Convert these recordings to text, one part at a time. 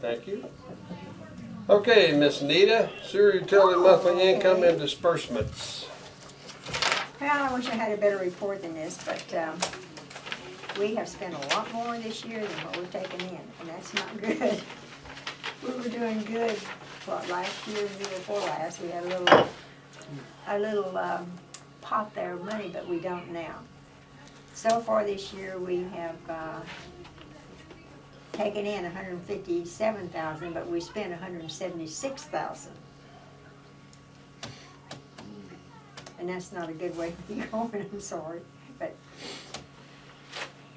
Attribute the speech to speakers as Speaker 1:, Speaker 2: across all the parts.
Speaker 1: Thank you. Okay, Miss Nita, sewer utility monthly income and disbursements.
Speaker 2: Well, I wish I had a better report than this, but, um, we have spent a lot more this year than what we've taken in, and that's not good. We were doing good, what, last year, the year before last, we had a little, a little, um, pot there of money, but we don't now. So far this year, we have, uh, taken in hundred and fifty-seven thousand, but we spent hundred and seventy-six thousand. And that's not a good way to be going, I'm sorry, but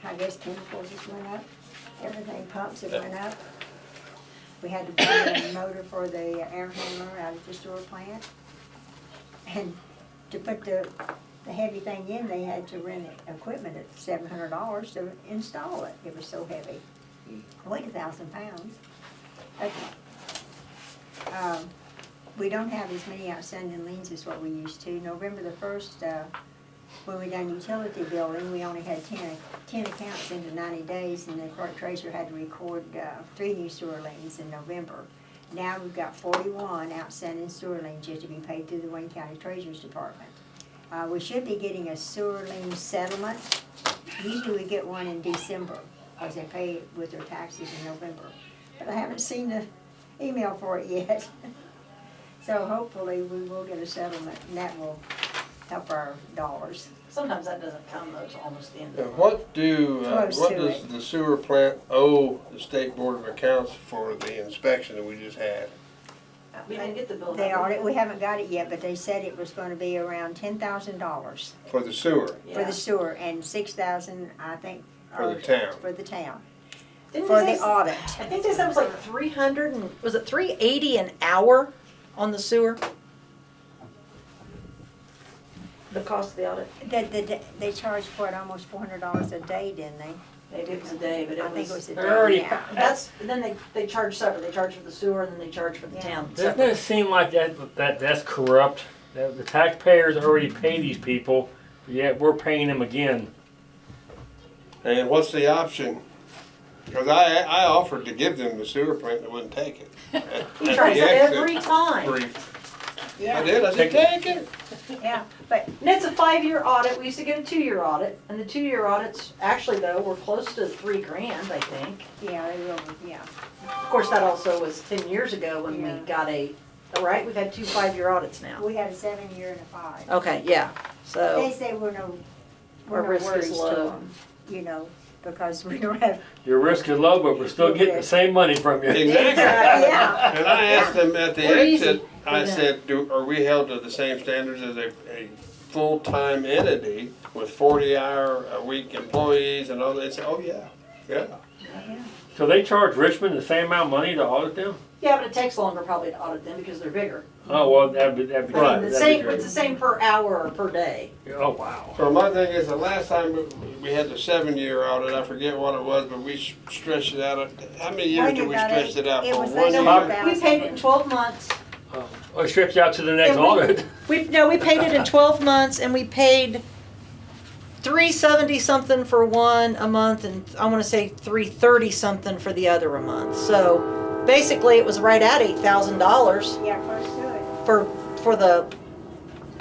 Speaker 2: I guess chemicals just went up, everything pumps have went up. We had to buy a motor for the air handler out at the sewer plant. And to put the, the heavy thing in, they had to rent equipment at seven hundred dollars to install it, it was so heavy. Weighed a thousand pounds. Okay. Um, we don't have as many outstanding liens as what we used to. November the first, uh, when we done utility billing, we only had ten, ten accounts into ninety days, and the clerk treasurer had to record, uh, three new sewer liens in November. Now we've got forty-one outstanding sewer liens yet to be paid through the Wayne County Treasurer's Department. Uh, we should be getting a sewer lien settlement. Usually we get one in December, cause they pay with their taxes in November. But I haven't seen the email for it yet. So hopefully we will get a settlement and that will help our dollars.
Speaker 3: Sometimes that doesn't come though till almost the end
Speaker 1: And
Speaker 3: of the
Speaker 1: what do, uh,
Speaker 2: Close
Speaker 1: what
Speaker 2: to
Speaker 1: does
Speaker 2: it.
Speaker 1: the sewer plant owe the state board of accounts for the inspection that we just had?
Speaker 3: We didn't get the bill.
Speaker 2: They
Speaker 3: have we?
Speaker 2: already, we haven't got it yet, but they said it was gonna be around ten thousand dollars
Speaker 1: For the sewer,
Speaker 2: for
Speaker 3: Yeah.
Speaker 2: the sewer and six thousand, I think.
Speaker 1: For the
Speaker 2: or-
Speaker 1: town.
Speaker 2: For the town,
Speaker 3: Didn't
Speaker 2: for
Speaker 3: they
Speaker 2: the
Speaker 3: say-
Speaker 2: audit.
Speaker 3: I think they said it was like three hundred and, was it three eighty an hour on the sewer? The cost of the audit?
Speaker 2: That, that, they charge what, almost four hundred dollars a day, didn't they?
Speaker 3: Maybe it was a day, but
Speaker 2: I
Speaker 3: it
Speaker 2: think it was
Speaker 3: was.
Speaker 2: a
Speaker 4: they're already
Speaker 2: day, yeah.
Speaker 3: That's, and then they, they charge separate, they charge for the sewer and then they charge for the town
Speaker 4: Doesn't
Speaker 3: separate.
Speaker 4: it seem like that, that that's corrupt? That the taxpayers already pay these people, yet we're paying them again.
Speaker 1: and what's the option? Cause I, I offered to give them the sewer plant, they wouldn't take it. At-
Speaker 3: He
Speaker 1: at
Speaker 3: charges
Speaker 1: the exit
Speaker 3: every time.
Speaker 1: brief. I
Speaker 2: Yeah,
Speaker 1: did, I said, take it.
Speaker 2: yeah, but
Speaker 3: And it's a five-year audit, we used to get a two-year audit, and the two-year audits, actually though, were close to three grand, I think.
Speaker 2: yeah, they will, yeah.
Speaker 3: Of course, that also was ten years ago when we
Speaker 2: Yeah.
Speaker 3: got a, all right, we've had two five-year audits now.
Speaker 2: We had a seven year and a five.
Speaker 3: Okay, yeah,
Speaker 2: They
Speaker 3: so,
Speaker 2: say we're no, we're
Speaker 3: Our
Speaker 2: no
Speaker 3: risk is
Speaker 2: worries to
Speaker 3: low.
Speaker 2: them, you know, because we don't have.
Speaker 4: Your risk is low, but we're still getting the same money from you.
Speaker 1: Exactly.
Speaker 2: Yeah,
Speaker 1: And I asked them at the
Speaker 3: We're easy
Speaker 1: exit, I
Speaker 3: that.
Speaker 1: said, do, are we held to the same standards as a, a full-time entity with forty-hour-a-week employees and all that? They said, oh, yeah, yeah.
Speaker 4: So they charge Richmond the same amount of money to audit them?
Speaker 3: yeah, but it takes longer probably to audit them because they're bigger.
Speaker 4: Oh, well, that'd be, that'd be.
Speaker 3: I mean,
Speaker 1: Right.
Speaker 3: the
Speaker 4: that'd be
Speaker 3: same,
Speaker 4: great.
Speaker 3: it's the same per hour or per day.
Speaker 4: Oh, wow.
Speaker 1: So my thing is, the last time we- we had the seven-year audit, I forget what it was, but we s- stretched it out, how many years did we
Speaker 2: Wondered about
Speaker 1: stretch
Speaker 2: it.
Speaker 1: it out
Speaker 2: It
Speaker 1: for?
Speaker 2: was
Speaker 1: One
Speaker 2: like
Speaker 1: year?
Speaker 2: about-
Speaker 3: We paid it in twelve months.
Speaker 4: Well, it stretched out to the next
Speaker 3: And we-
Speaker 4: audit.
Speaker 3: We, no, we paid it in twelve months and we paid three seventy something for one a month and I wanna say three thirty something for the other a month. So basically it was right at eight thousand dollars
Speaker 2: yeah, close to it.
Speaker 3: for, for the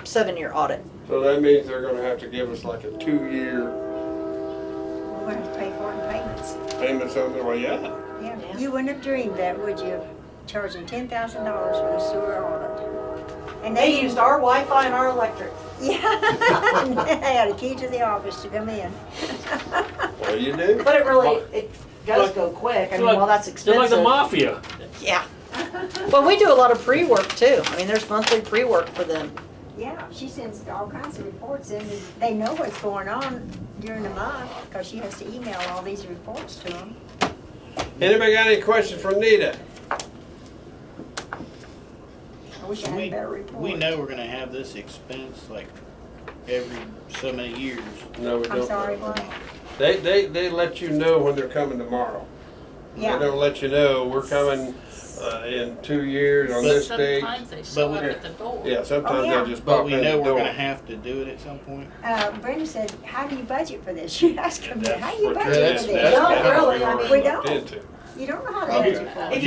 Speaker 3: seven-year audit.
Speaker 1: So that means they're gonna have to give us like a two-year
Speaker 2: We're gonna have to pay for it in payments,
Speaker 1: payment something, well, yeah.
Speaker 2: yeah.
Speaker 3: Yeah.
Speaker 2: You wouldn't have dreamed that, would you, charging ten thousand dollars for a sewer audit? And
Speaker 3: They used our Wi-Fi and our electric.
Speaker 2: Yeah, and they had a key to the office to come in.
Speaker 1: Well, you do.
Speaker 3: But it really, it does go quick. I mean, while that's
Speaker 4: They're like the
Speaker 3: expensive.
Speaker 4: mafia.
Speaker 3: Yeah. Well, we do a lot of pre-work too. I mean, there's monthly pre-work for them.
Speaker 2: Yeah, she sends all kinds of reports in, and they know what's going on during the month, cause she has to email all these reports to them.
Speaker 1: Anybody got any questions for Nita?
Speaker 2: I wish I
Speaker 5: So
Speaker 2: had a
Speaker 5: we,
Speaker 2: better report.
Speaker 5: we know we're gonna have this expense like every so many years.
Speaker 1: No, we don't.
Speaker 2: I'm sorry, what?
Speaker 1: They, they, they let you know when they're coming tomorrow. They
Speaker 2: Yeah.
Speaker 1: don't let you know, we're coming, uh, in two years on
Speaker 5: But-
Speaker 1: this date.
Speaker 6: Sometimes they show
Speaker 5: we-
Speaker 6: up at the door.
Speaker 1: Yeah, sometimes
Speaker 2: Oh, yeah.
Speaker 1: they just
Speaker 5: But
Speaker 1: pop
Speaker 5: we
Speaker 1: in the
Speaker 5: know we're
Speaker 1: door.
Speaker 5: gonna have to do it at some point.
Speaker 2: Uh, Brenda said, how do you budget for this? You asked me, how do you
Speaker 1: That's what-
Speaker 2: budget for this?
Speaker 5: that's-
Speaker 3: Don't
Speaker 1: that's what
Speaker 3: really,
Speaker 1: we
Speaker 3: I
Speaker 1: already
Speaker 2: mean- We
Speaker 1: looked
Speaker 2: don't.
Speaker 1: into.
Speaker 2: You don't know how to budget for it.
Speaker 3: If